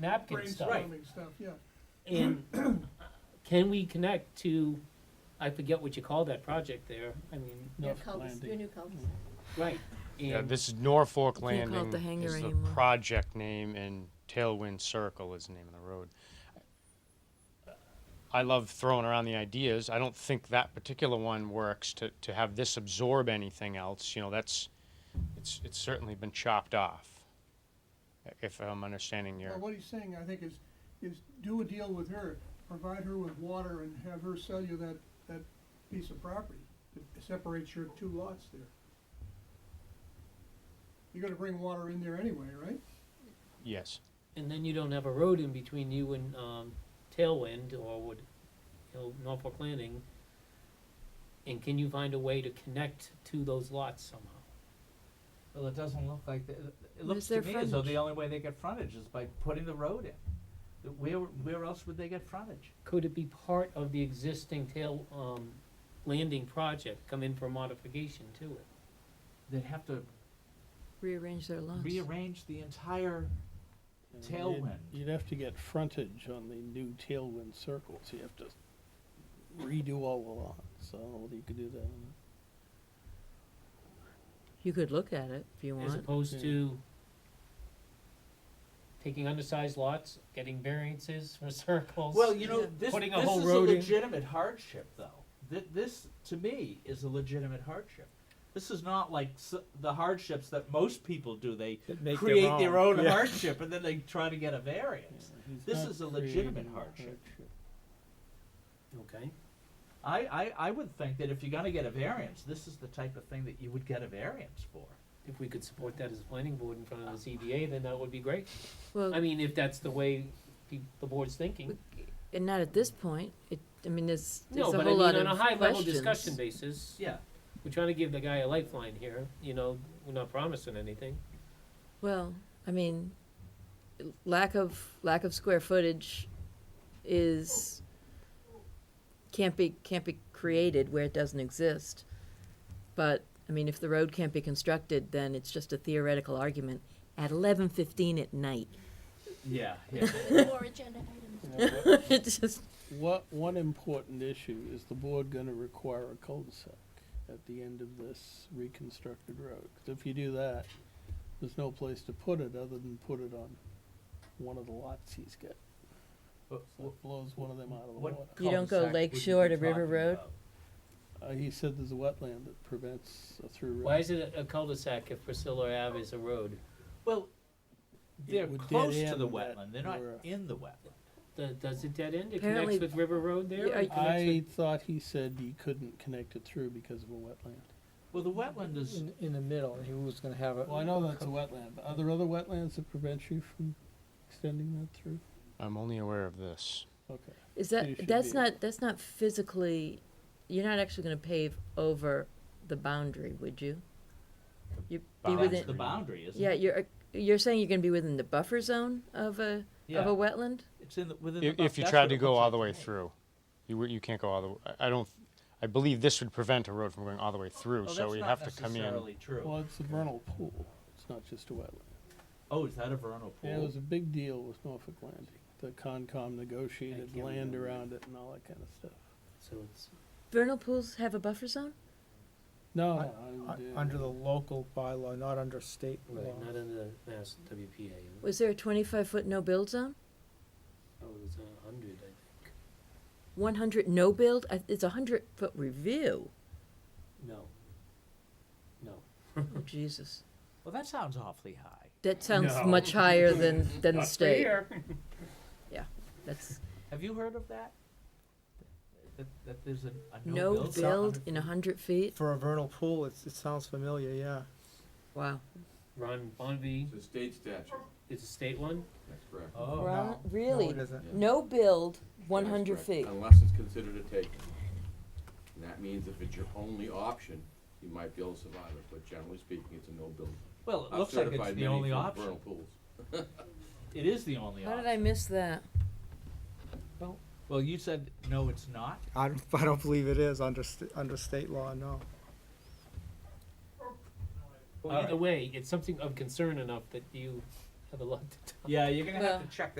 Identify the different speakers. Speaker 1: napkin stuff.
Speaker 2: Brainstorming stuff, yeah.
Speaker 1: And can we connect to, I forget what you call that project there, I mean,
Speaker 3: Your
Speaker 4: North
Speaker 3: cul-de-sac,
Speaker 4: Landing.
Speaker 3: your new cul-de-sac.
Speaker 1: right.
Speaker 5: Yeah,
Speaker 1: And
Speaker 5: this is Norfolk
Speaker 6: call it the
Speaker 5: Landing
Speaker 6: hangar
Speaker 5: is the
Speaker 6: anymore.
Speaker 5: project name, and Tailwind Circle is the name of the road. I love throwing around the ideas. I don't think that particular one works to, to have this absorb anything else. You know, that's, it's, it's certainly been chopped off, if I'm understanding your.
Speaker 2: Well, what he's saying, I think, is, is do a deal with her, provide her with water and have her sell you that, that piece of property that separates your two lots there. You're gonna bring water in there anyway, right?
Speaker 5: Yes.
Speaker 1: And then you don't have a road in between you and, um, Tailwind or would, you know, Norfolk Landing. And can you find a way to connect to those lots somehow?
Speaker 4: Well, it doesn't look like, the- it it looks
Speaker 6: Where's
Speaker 4: to
Speaker 6: their
Speaker 4: me as though
Speaker 6: frontage?
Speaker 4: the only way they get frontage is by putting the road in. The- Where, where else would they get frontage?
Speaker 1: Could it be part of the existing tail, um, landing project, come in for modification to it?
Speaker 4: They'd have to
Speaker 6: Rearrange their lots.
Speaker 4: rearrange the entire
Speaker 7: And you'd-
Speaker 4: tailwind.
Speaker 7: You'd have to get frontage on the new tailwind circle, so you have to redo all the lots, so I don't know whether you could do that. or not.
Speaker 6: You could look at it if you
Speaker 1: As
Speaker 6: want.
Speaker 1: opposed
Speaker 7: Yeah.
Speaker 1: to taking undersized lots, getting variances for circles.
Speaker 4: Well, you know,
Speaker 6: Yeah.
Speaker 4: this,
Speaker 1: Putting a
Speaker 4: this
Speaker 1: whole
Speaker 4: is a
Speaker 1: road in.
Speaker 4: legitimate hardship, though. Th- this, to me, is a legitimate hardship. This is not like s- the hardships that most people do. They create their own hardship and then they try to get a variance.
Speaker 7: He's
Speaker 4: This
Speaker 7: not
Speaker 4: is a legitimate
Speaker 7: creating a
Speaker 4: hardship.
Speaker 1: Okay.
Speaker 4: I, I, I would think that if you're going to get a variance, this is the type of thing that you would get a variance for.
Speaker 1: If we could support that as a planning board in front of the ZBA, then that would be great. I
Speaker 6: Ah. Well,
Speaker 1: mean, if that's the way the, the board's thinking.
Speaker 6: and not at this point. It, I mean, there's, there's
Speaker 1: No,
Speaker 6: a
Speaker 1: but I
Speaker 6: whole lot
Speaker 1: mean, on
Speaker 6: of
Speaker 1: a high level
Speaker 6: questions.
Speaker 1: discussion basis,
Speaker 4: Yeah.
Speaker 1: we're trying to give the guy a lifeline here, you know, we're not promising anything.
Speaker 6: Well, I mean, lack of, lack of square footage is, can't be, can't be created where it doesn't exist. But, I mean, if the road can't be constructed, then it's just a theoretical argument at eleven fifteen at night.
Speaker 4: Yeah. yeah.
Speaker 3: More agenda items.
Speaker 7: You know, what-
Speaker 6: It's just,
Speaker 7: What, one important issue, is the board gonna require a cul-de-sac at the end of this reconstructed road? 'Cause if you do that, there's no place to put it other than put it on one of the lots he's got.
Speaker 4: But
Speaker 7: So it blows one of them out of the
Speaker 4: what
Speaker 7: water.
Speaker 6: You don't go
Speaker 4: cul-de-sac would you
Speaker 6: lakeshore
Speaker 4: be
Speaker 6: to River
Speaker 4: talking
Speaker 6: Road?
Speaker 4: about?
Speaker 7: Uh, he said there's a wetland that prevents a through road.
Speaker 1: Why is it a cul-de-sac if Priscilla Ave is a road?
Speaker 4: Well,
Speaker 7: It
Speaker 4: they're
Speaker 7: would dead
Speaker 4: close to the
Speaker 7: end that
Speaker 4: wetland. They're not
Speaker 7: were-
Speaker 4: in the wetland.
Speaker 1: The- Does it dead end? It
Speaker 6: Apparently-
Speaker 1: connects with River Road there?
Speaker 6: Yeah,
Speaker 1: It connects with-
Speaker 7: I thought he said you couldn't connect it through because of a wetland.
Speaker 4: Well, the wetland is
Speaker 8: in, in the middle, he was gonna have a.
Speaker 7: Well, I know that's a wetland, but are there other wetlands that prevent you from extending that through?
Speaker 5: I'm only aware of this.
Speaker 7: Okay.
Speaker 6: Is
Speaker 7: you should
Speaker 6: that, that's
Speaker 7: be-
Speaker 6: not, that's not physically, you're not actually gonna pave over the boundary, would you? You, be
Speaker 5: Boundary.
Speaker 6: within,
Speaker 4: the boundary, isn't
Speaker 6: yeah,
Speaker 4: it?
Speaker 6: you're, uh, you're saying you're gonna be within the buffer zone of a, of a wetland?
Speaker 4: It's in the, within
Speaker 5: If,
Speaker 4: the.
Speaker 5: if you tried to go all the way through, you, wou- you can't go all the, w- I- I don't, I believe this would prevent a road from going all the way through, so you'd have to come in.
Speaker 7: Well, it's a vernal pool. It's not just a wetland.
Speaker 4: Oh, is that a vernal
Speaker 7: Yeah, it
Speaker 4: pool?
Speaker 7: was a big deal with Norfolk Landing. The Concom negotiated
Speaker 1: can't
Speaker 7: land
Speaker 1: remember.
Speaker 7: around it and all that kind of stuff.
Speaker 1: So it's,
Speaker 6: Vernal pools have a buffer zone?
Speaker 7: No,
Speaker 8: I-
Speaker 7: no, I
Speaker 8: Uh,
Speaker 7: did-
Speaker 8: Under the local bylaw, not under state law.
Speaker 1: right, not in the Mass WPA.
Speaker 6: Was there a twenty-five foot no-build zone?
Speaker 1: Oh, it was a hundred, I think.
Speaker 6: One hundred no-build? I- It's a hundred foot review.
Speaker 1: No. No.
Speaker 6: Oh, Jesus.
Speaker 4: Well, that sounds awfully high.
Speaker 6: That sounds
Speaker 1: No.
Speaker 6: much higher than, than the state. That's
Speaker 4: Have you heard of that? That, that there's a, a no build.
Speaker 6: no-build in a hundred feet?
Speaker 8: For a vernal pool, it's, it sounds familiar, yeah.
Speaker 6: Wow.
Speaker 1: Ron Bonvy,
Speaker 9: It's a state statute,
Speaker 1: it's a state one?
Speaker 9: that's correct.
Speaker 4: Oh,
Speaker 8: Well, No,
Speaker 6: Really?
Speaker 8: it isn't.
Speaker 6: No-build, one
Speaker 9: That's
Speaker 6: hundred
Speaker 9: correct,
Speaker 6: feet.
Speaker 9: Unless it's considered a take. And that means if it's your only option, you might be able to survive it, but generally speaking, it's a no build.
Speaker 4: well, it
Speaker 9: I've
Speaker 4: looks like it's
Speaker 9: certified
Speaker 4: the
Speaker 9: many
Speaker 4: only
Speaker 9: for
Speaker 4: option.
Speaker 9: vernal pools.
Speaker 4: It is the only
Speaker 6: How did
Speaker 4: option.
Speaker 6: I miss that?
Speaker 4: Well, you said, no, it's not.
Speaker 8: I don't, I don't believe it is under, st- under state law, no.
Speaker 1: Well,
Speaker 4: All
Speaker 1: either
Speaker 4: right.
Speaker 1: way, it's something of concern enough that you have a lot to
Speaker 4: Yeah, you're gonna have
Speaker 6: Well-
Speaker 4: to check